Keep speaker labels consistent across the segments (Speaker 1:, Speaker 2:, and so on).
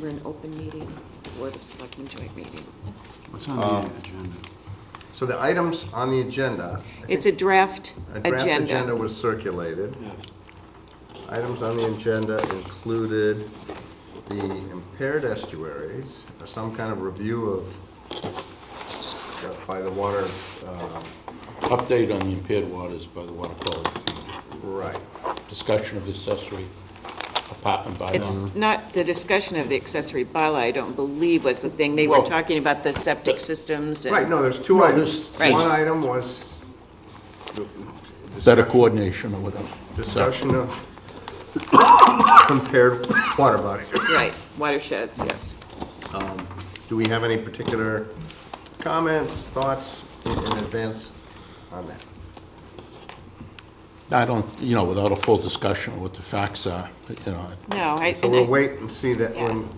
Speaker 1: we're in open meeting, Board of Selectmen joint meeting.
Speaker 2: What's on the agenda?
Speaker 3: So the items on the agenda,
Speaker 1: It's a draft
Speaker 3: a draft agenda
Speaker 1: agenda.
Speaker 3: was circulated.
Speaker 2: Yes.
Speaker 3: Items on the agenda included the impaired estuaries, or some kind of review of, by the water, um,
Speaker 4: Update on the impaired waters by the Water Quality Committee.
Speaker 3: right.
Speaker 4: Discussion of accessory apartment
Speaker 3: Uh-huh.
Speaker 4: bylaw.
Speaker 1: It's not, the discussion of the accessory bylaw, I don't believe was the thing. They were
Speaker 4: Well-
Speaker 1: talking about the septic systems and.
Speaker 3: Right, no, there's two items.
Speaker 4: this-
Speaker 1: Right.
Speaker 3: One item was. the-
Speaker 4: Better coordination or whatever.
Speaker 3: Discussion of compared water body.
Speaker 1: Right, watersheds, yes.
Speaker 3: Do we have any particular comments, thoughts in in advance on that?
Speaker 4: I don't, you know, without a full discussion of what the facts are, you know.
Speaker 1: No, I,
Speaker 3: So
Speaker 1: and
Speaker 3: we'll
Speaker 1: I,
Speaker 3: wait and see that when,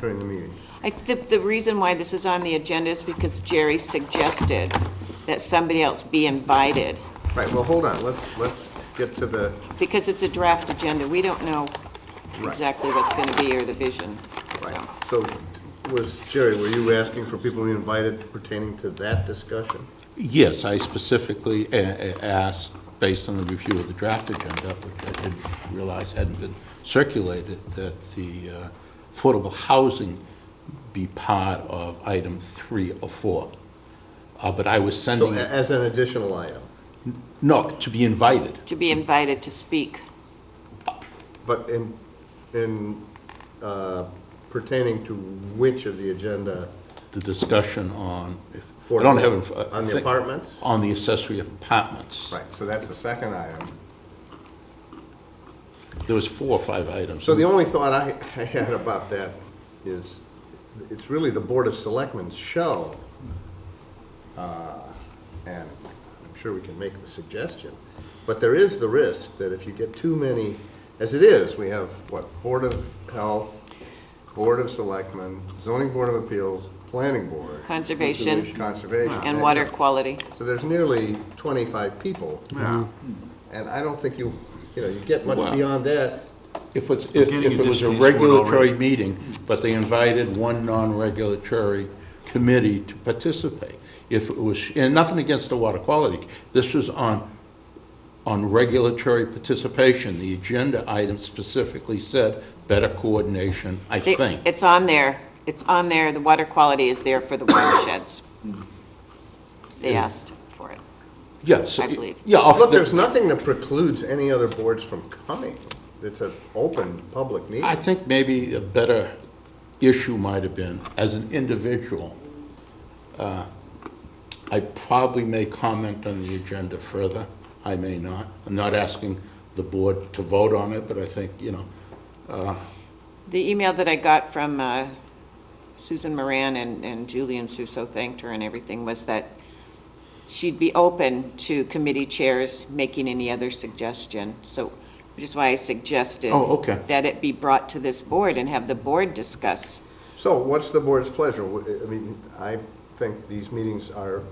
Speaker 3: during the meeting.
Speaker 1: I think the reason why this is on the agenda is because Jerry suggested that somebody else be invited,
Speaker 3: Right, well, hold on, let's, let's get to the,
Speaker 1: because it's a draft agenda. We don't know
Speaker 3: Right.
Speaker 1: exactly what's going to be or the vision, so.
Speaker 3: right. So was, Jerry, were you asking for people to be invited pertaining to that discussion?
Speaker 4: Yes, I specifically uh, uh, asked, based on the review of the draft agenda, which I didn't realize hadn't been circulated, that the uh, affordable housing be part of item three or four. Uh, But I was
Speaker 3: So eh,
Speaker 4: sending,
Speaker 3: a- as an additional item,
Speaker 4: no, to be invited.
Speaker 1: To be invited to speak.
Speaker 3: but in, in uh, pertaining to which of the agenda?
Speaker 4: the discussion on, if-
Speaker 3: For
Speaker 4: I don't
Speaker 3: the-
Speaker 4: have. uh, it in-
Speaker 3: on the
Speaker 4: I think-
Speaker 3: apartments?
Speaker 4: On the accessory apartments.
Speaker 3: Right, so that's the second item.
Speaker 4: There was four or five items.
Speaker 3: So the only thought I, I had about that is, it's really the Board of Selectmen's show. uh, And I'm sure we can make the suggestion, but there is the risk that if you get too many, as it is, we have, what, Board of Health, Board of Selectmen, Zoning Board of Appeals, Planning Board.
Speaker 1: Conservation.
Speaker 3: Conservation.
Speaker 1: And water quality.
Speaker 3: So there's nearly twenty-five people,
Speaker 2: Yeah,
Speaker 3: and I don't think you, you know, you get much
Speaker 4: Wow.
Speaker 3: beyond that.
Speaker 4: If it's, if
Speaker 2: getting
Speaker 4: if it was a
Speaker 2: in this case, we're already-
Speaker 4: regulatory meeting, but they invited one non-regulatory committee to participate. If it was, and nothing against the water quality, this was on, on regulatory participation. The agenda item specifically said better coordination, I
Speaker 1: They-
Speaker 4: think.
Speaker 1: It's on there. It's on there. The water quality is there for the watersheds.
Speaker 4: Mm-hmm.
Speaker 1: They asked for it.
Speaker 4: Yes.
Speaker 1: I believe.
Speaker 4: Yeah. off
Speaker 3: Look,
Speaker 4: the-
Speaker 3: there's nothing that precludes any other boards from coming. It's an open, public meeting.
Speaker 4: I think maybe a better issue might have been, as an individual, uh, I probably may comment on the agenda further, I may not. I'm not asking the board to vote on it, but I think, you know,
Speaker 1: The email that I got from uh, Susan Moran and and Julian Suso thanked her and everything was that she'd be open to committee chairs making any other suggestion. So, which is why I suggested.
Speaker 4: Oh, okay.
Speaker 1: That it be brought to this board and have the board discuss.
Speaker 3: So what's the board's pleasure? W- I mean, I think these meetings are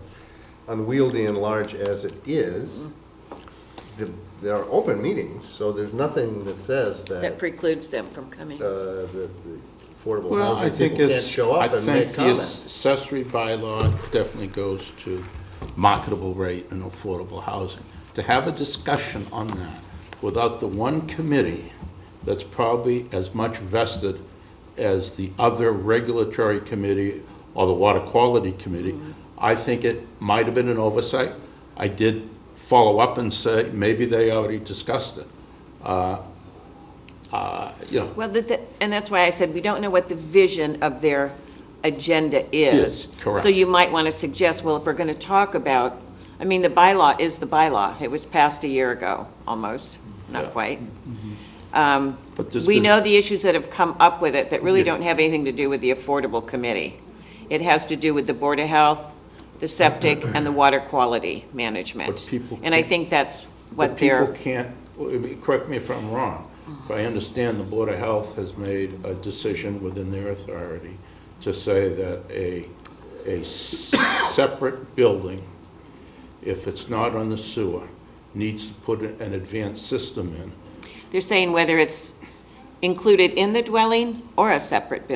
Speaker 3: unwieldy and large as it is.
Speaker 4: Mm-hmm.
Speaker 3: The- There are open meetings, so there's nothing that says that
Speaker 1: That
Speaker 3: uh,
Speaker 1: precludes them from coming.
Speaker 3: the the affordable
Speaker 4: well, I
Speaker 3: housing
Speaker 4: think
Speaker 3: people can't
Speaker 4: it's,
Speaker 3: show
Speaker 4: I
Speaker 3: up and
Speaker 4: think
Speaker 3: make
Speaker 4: the
Speaker 3: comments.
Speaker 4: accessory bylaw definitely goes to marketable rate and affordable housing. To have a discussion on that without the one committee that's probably as much vested as the other regulatory committee or the water quality committee,
Speaker 3: Mm-hmm.
Speaker 4: I think it might have been an oversight. I did follow up and say, maybe they already discussed it. Uh, uh, You know,
Speaker 1: Well, that, that- and that's why I said, we don't know what the vision of their agenda is.
Speaker 4: Is, correct.
Speaker 1: So you might want to suggest, well, if we're going to talk about, I mean, the bylaw is the bylaw. It was passed a year ago, almost,
Speaker 4: Yeah.
Speaker 1: not quite. Um,
Speaker 4: but there's
Speaker 1: We
Speaker 4: been-
Speaker 1: know the issues that have come up with it that really
Speaker 4: Yeah.
Speaker 1: don't have anything to do with the Affordable Committee. It has to do with the Board of Health, the septic, and the water quality management.
Speaker 4: But people
Speaker 1: And I
Speaker 4: can't-
Speaker 1: think that's what
Speaker 4: But
Speaker 1: they're.
Speaker 4: people can't, correct me if I'm wrong, if I understand, the Board of Health has made a decision within their authority to say that a, a separate building, if it's not on the sewer, needs to put an advanced system in
Speaker 1: They're saying whether it's included in the dwelling or a separate building.